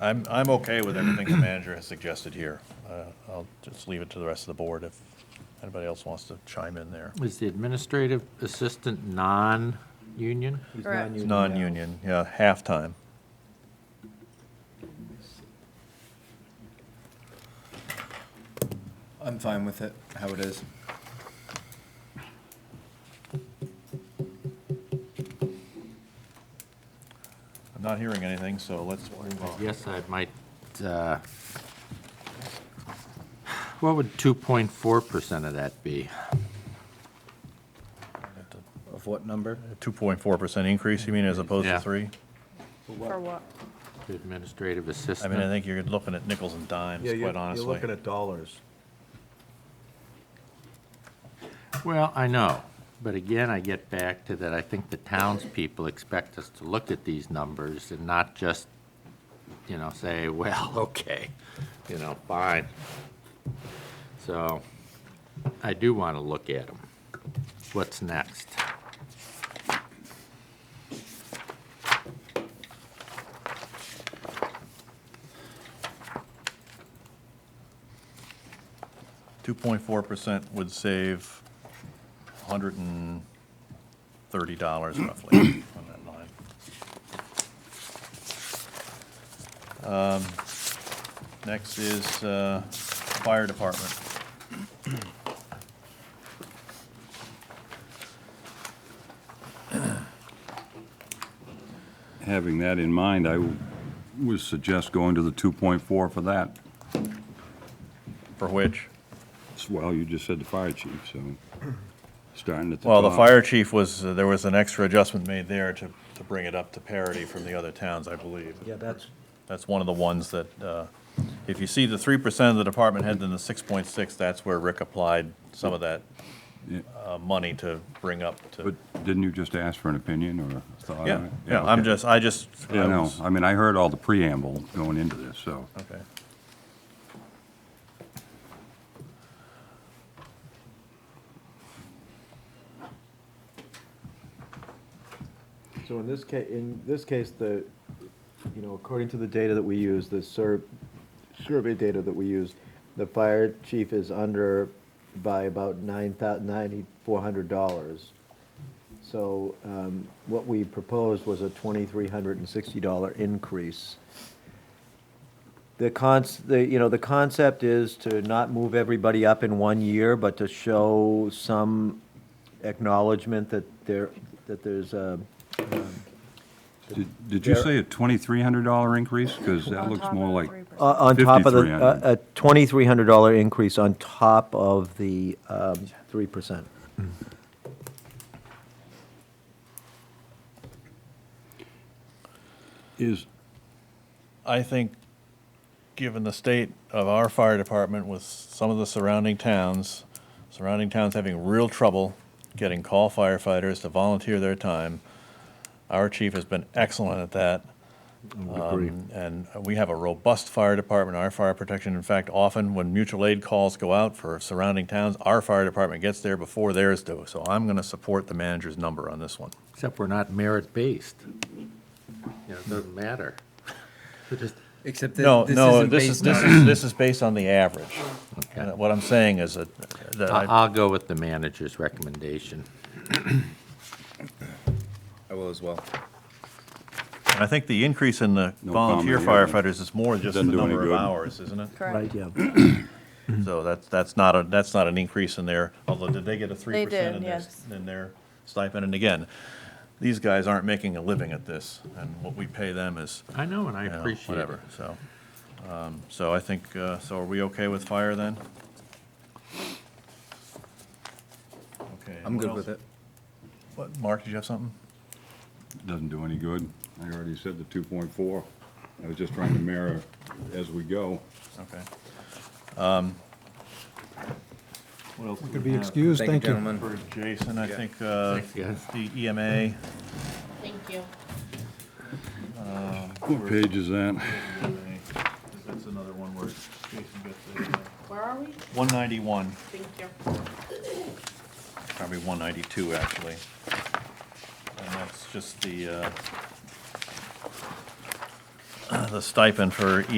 I'm, I'm okay with everything the manager has suggested here. Uh, I'll just leave it to the rest of the board if anybody else wants to chime in there. Is the administrative assistant non-union? Correct. It's non-union, yeah, halftime. I'm fine with it, how it is. I'm not hearing anything, so let's move on. Yes, I might, uh, what would 2.4% of that be? Of what number? Two point four percent increase, you mean, as opposed Yeah. to three? For what? The Administrative I mean, I assistant? think you're looking at nickels and dimes, Yeah, you're, quite you're honestly. looking at dollars. Well, I know, but again, I get back to that, I think the townspeople expect us to look at these numbers and not just, you know, say, well, okay, you know, fine. So I do want to look at them. What's next? Two point four percent would save hundred and thirty dollars roughly on that line. Um, Next is, uh, fire department. Having that in mind, I would suggest going to the 2.4 for that. For which? Well, you just said the fire chief, so starting at the Well, top. the fire chief was, uh, there was an extra adjustment made there to, to bring it up to parity from the other towns, I believe. Yeah, that's, That's one of the ones that, uh, if you see the three percent of the department head and the six point six, that's where Rick applied some of that Yeah. uh, money to bring up to. But didn't you just ask for an opinion or a thought on Yeah, it? yeah, I'm okay. just, I just. I Yeah, no, was- I mean, I heard all the preamble going into this, so. Okay. so in this case, in this case, the, you know, according to the data that we use, the sur- survey data that we use, the fire chief is under by about nine thousand ninety-four hundred dollars. So, um, what we proposed was a twenty-three hundred and sixty dollar increase. The cons, the, you know, the concept is to not move everybody up in one year, but to show some acknowledgement that there, that there's a, Did- Did you There- say a $2,300 increase? Because that On looks top more of like, 3%. Uh, On top of the, $5,300. uh, a twenty-three hundred dollar increase on top of the um, three percent. is, I think, given the state of our fire department with some of the surrounding towns, surrounding towns having real trouble getting call firefighters to volunteer their time, our chief has been excellent at that. Um, And we have a robust fire department, our fire protection. In fact, often when mutual aid calls go out for surrounding towns, our fire department gets there before theirs do. So I'm going to support the manager's number on this one. Except we're not merit-based. You know, it doesn't matter. We're just- Except No, that this no, isn't this is, based this on. is, this is based on the average. Okay. And What I'm saying is that, Uh, that I- I- I'll go with the manager's recommendation. I will as well. I think the increase in the No volunteer comment, yeah. firefighters is more just the Doesn't do any number of good. hours, isn't it? Correct. yeah. Mm-hmm. So that's, that's not a, that's not an increase in their, although did they get a three percent did, in their, yes. in their stipend? And again, these guys aren't making a living at this, and what we pay them is, I know, and I you know, appreciate it. whatever, so. um, So I think, uh, so are we okay with fire then? Okay. I'm what good else? with it. What, Mark, did you have something? doesn't do any good. I already said the 2.4. I was just trying to mirror as we go. Okay. Um, We could be excused, Thank you, thank you. gentlemen. For Jason, I think, uh, Thanks, guys. the EMA, Thank you. What page is that? That's another one where Jason gets uh, Where are we? One ninety-one, Thank you. probably one ninety-two, actually. And that's just the, uh, the stipend for